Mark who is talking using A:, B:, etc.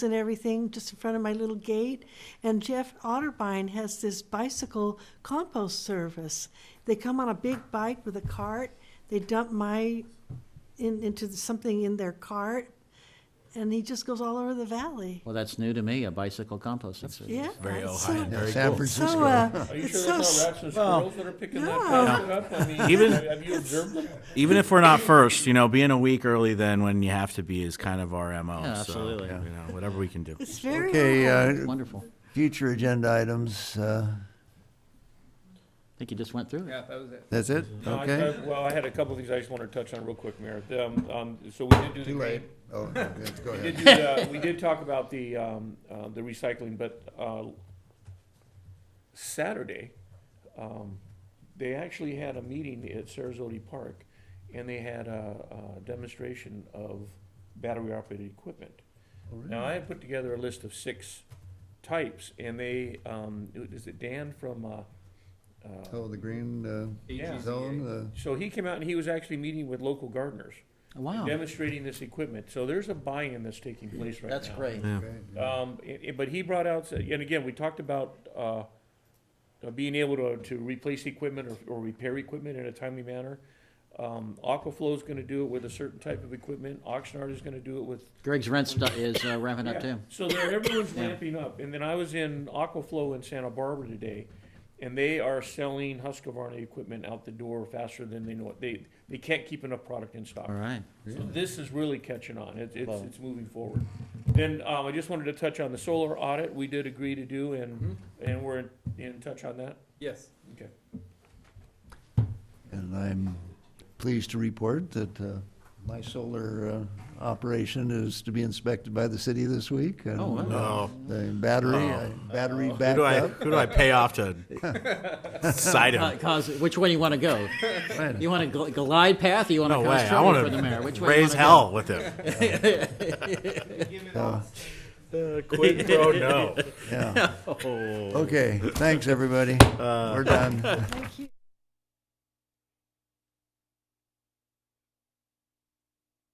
A: and everything just in front of my little gate. And Jeff Otterbein has this bicycle compost service. They come on a big bike with a cart. They dump my in, into the, something in their cart, and he just goes all over the valley.
B: Well, that's new to me, a bicycle composting service.
A: Yeah,
C: Very
A: it's
C: Ohio,
A: So,
C: very
D: San
C: cool.
A: so
D: Francisco.
A: uh,
E: Are you
A: it's
E: sure
A: so
E: there's
A: s-
E: not rats and squirrels that are picking that
A: no.
E: basket up? I mean,
F: Even-
E: have have you observed them?
F: Even if we're not first, you know, being a week early then when you have to be is kind of our MO.
B: Yeah,
F: so,
B: absolutely.
F: you know, whatever we can do.
A: it's very
D: Okay,
A: Ohio.
D: uh,
B: Wonderful.
D: future agenda items, uh,
B: I think you just went through it.
G: Yeah, that was it.
D: that's it?
E: No, I-
D: Okay?
E: I- Well, I had a couple of things I just wanted to touch on real quick, Mayor. Um, um, So we did do the
D: Too
E: green,
D: late. Oh, okay, go
E: We
D: ahead.
E: did do the, we did talk about the, um, uh, the recycling, but, uh, Saturday, um, they actually had a meeting at Sarasota Park, and they had a, a demonstration of battery-operated equipment. Now, I had put together a list of six types, and they, um, is it Dan from, uh, uh,
D: Oh, the green
E: Yeah.
D: uh, zone,
E: so he came out and he was actually meeting with local gardeners,
B: Oh, Wow,
E: demonstrating this equipment. So there's a buy-in that's taking place right now.
B: that's great.
D: uh,
F: Yeah.
D: okay.
E: Um, i- i- but he brought out, and again, we talked about, uh, uh, being able to, to replace equipment or, or repair equipment in a timely manner. Um, Aquaflow's gonna do it with a certain type of equipment, Oxnard is gonna do it with.
B: Greg's rent stu- is uh, ramping up too.
E: So there, everyone's
B: Yeah.
E: ramping up, and then I was in Aquaflow in Santa Barbara today, and they are selling Husqvarna equipment out the door faster than they know it, they, they can't keep enough product in stock.
B: All right.
E: So this is really catching on. It's, it's,
B: Love it.
E: it's moving forward. Then, um, I just wanted to touch on the solar audit we did agree to do and, and we're in, in touch on that.
G: Yes.
E: Okay.
D: And I'm pleased to report that uh, my solar uh, operation is to be inspected by the city this week. and,
B: Oh, wow.
D: uh,
F: No.
D: The battery, I- battery
F: Who do I
D: backup.
F: who do I pay off to cite
B: Uh,
F: him?
B: Cause, which way you want to go? You want a gl- glide path or you want to
F: No way.
B: cause
F: I
B: trouble for
F: want
B: the mayor? Which
F: to
B: way you wanna
F: raise
B: go?
F: hell with him.
G: Give it
D: uh,
G: all.
F: Quid pro no. Uh,
D: Yeah. Okay, thanks, everybody. We're done.
A: Thank you.